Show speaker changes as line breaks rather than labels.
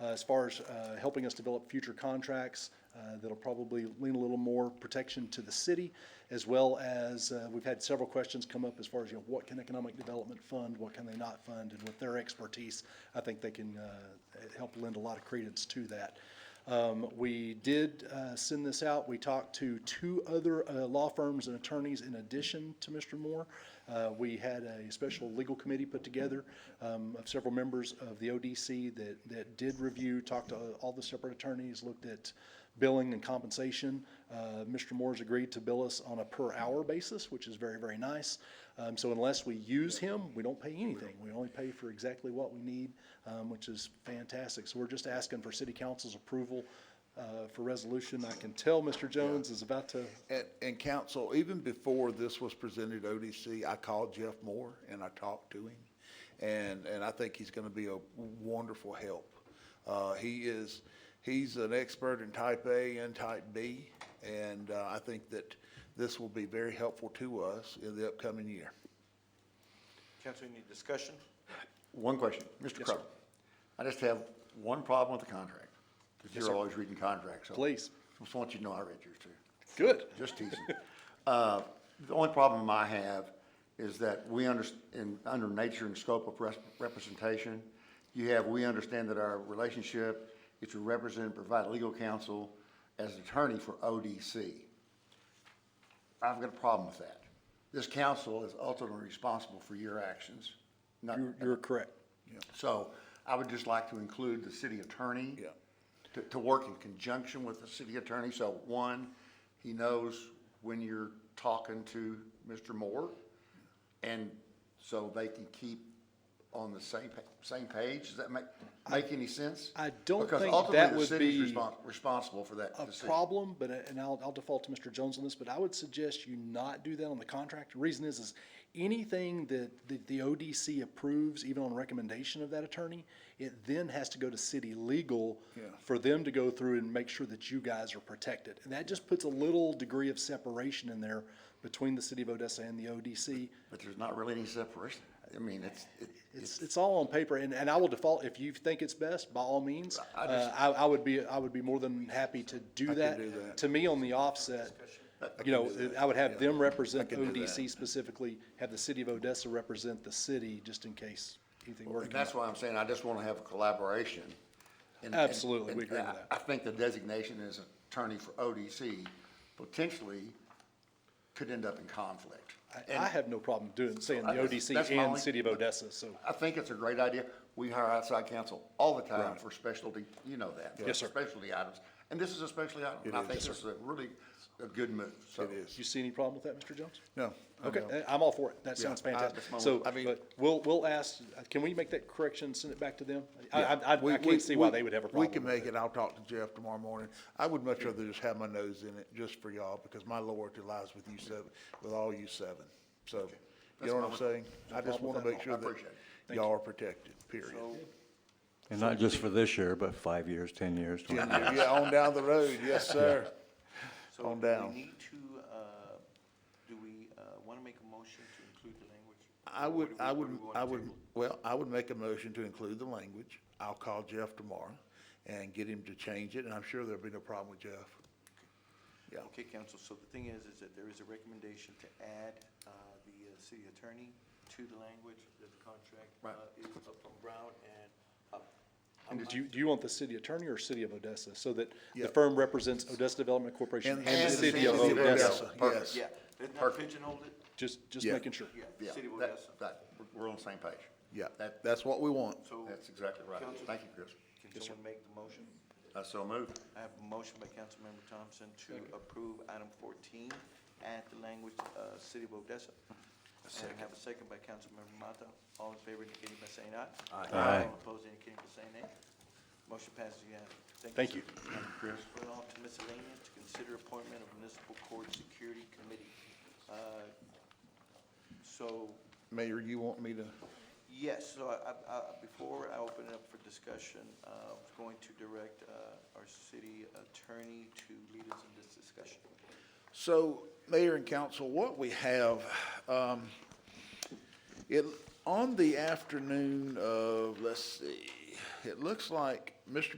as far as uh, helping us develop future contracts, uh, that'll probably lean a little more protection to the city, as well as, uh, we've had several questions come up as far as, you know, what can economic development fund, what can they not fund, and with their expertise, I think they can uh, help lend a lot of credence to that. Um, We did uh, send this out. We talked to two other uh, law firms and attorneys in addition to Mr. Moore. Uh, We had a special legal committee put together um, of several members of the ODC that, that did review, talked to all the separate attorneys, looked at billing and compensation. Uh, Mr. Moore's agreed to bill us on a per-hour basis, which is very, very nice. Um, So unless we use him, we don't pay anything. We only pay for exactly what we need, um, which is fantastic. So we're just asking for city council's approval uh, for resolution. I can tell Mr. Jones is about to,
And, and council, even before this was presented to ODC, I called Jeff Moore and I talked to him. And, and I think he's gonna be a wonderful help. Uh, he is, he's an expert in type A and type B. And, uh, I think that this will be very helpful to us in the upcoming year.
Council, any discussion?
One question, Mr. Crowe. I just have one problem with the contract, because you're always reading contracts. so-
Please.
Just want you to know I read yours too,
good.
just teasing. Uh, The only problem I have is that we under, in, under nature and scope of res- representation, you have, we understand that our relationship is to represent and provide legal counsel as attorney for ODC. I've got a problem with that. This council is ultimately responsible for your actions, not.
You're- You're correct.
So I would just like to include the city attorney.
Yeah.
To, to work in conjunction with the city attorney. So one, he knows when you're talking to Mr. Moore. And so they can keep on the same, pa- same page. Does that make, make any sense?
I don't
Because
think
ultimately
that
the
would be
city's respons- Responsible for that
a
decision.
problem, but, uh, and I'll, I'll default to Mr. Jones on this, but I would suggest you not do that on the contract. The reason is, is anything that, that the ODC approves, even on recommendation of that attorney, it then has to go to city legal for them to go through and make sure that you guys are protected. And that just puts a little degree of separation in there between the city of Odessa and the ODC.
But there's not really any separation. I mean, it's, it-
It's, it's all on paper, and, and I will default, if you think it's best, by all means.
I
Uh, I, I would be, I would be more than happy to do that.
do that.
To me, on the offset, you know, I would have them represent ODC specifically, have the city of Odessa represent the city, just in case anything were to
And
come
that's
up.
why I'm saying I just want to have a collaboration. And- and-
Absolutely, we
and
agree with
I-
that.
I think the designation as attorney for ODC potentially could end up in conflict.
I, I have no problem doing, saying the
I- that's- that's
ODC
my
and
only-
city of Odessa, so,
I think it's a great idea. We hire outside counsel all the time for specialty, you know that. for
Yes, sir.
Specialty items. And this is a specialty item. And I think this is a really a good move. So
It is.
you see any problem with that, Mr. Jones?
No.
Okay, uh, I'm all for it. That sounds
I-
fantastic.
that's my
So,
one- I mean-
but we'll, we'll ask, can we make that correction, send it back to them? I, I, I-
We-
I
we-
can't see why
we-
they would have a
We
problem.
can
with
make it, I'll talk to Jeff tomorrow morning. I would much rather just have my nose in it just for y'all, because my loyalty lies with you seven, with all you seven. So, you know what I'm saying? I just wanna make sure
I
that
appreciate it.
y'all are protected, period.
And not just for this year, but five years, 10 years, 20 years.
Yeah, on down the road, yes, sir.
So
On
Do
down.
we need to, uh, do we want to make a motion to include the language?
I would,
What do we-
I would,
what do we wanna
I would,
table?
well, I would make a motion to include the language. I'll call Jeff tomorrow and get him to change it, and I'm sure there'll be no problem with Jeff. Yeah.
Okay, council, so the thing is, is that there is a recommendation to add uh, the uh, city attorney to the language that the contract uh, is up from Brown and up.
And do you, do you want the city attorney or city of Odessa, so that
Yeah.
the firm represents Odessa Development Corporation and the city of
city of
Odessa?
Odessa.
Perfect.
Yeah, let's not
Perfect.
pigeonhole it.
Just, just
Yeah.
making sure.
Yeah,
Yeah, city of
that-
Odessa.
that- we're- we're on the same page.
Yeah,
That,
that's what we want.
So
that's exactly right.
Council-
Thank you, Chris.
Can someone make the motion?
I so move.
I have a motion by Councilmember Thompson to approve item fourteen, add the language, uh, City of Odessa. And I have a second by Councilmember Mata. All in favor indicating by saying aye.
Aye.
All opposed indicating by saying nay. Motion passes unanimously.
Thank you.
Chris. Going on to miscellaneous, to consider appointment of municipal court security committee. Uh, So,
Mayor, you want me to?
Yes, so I, I- I, before I open it up for discussion, uh, I was going to direct, uh, our city attorney to lead us in this discussion.
So, Mayor and Council, what we have, um, it, on the afternoon of, let's see, it looks like Mr.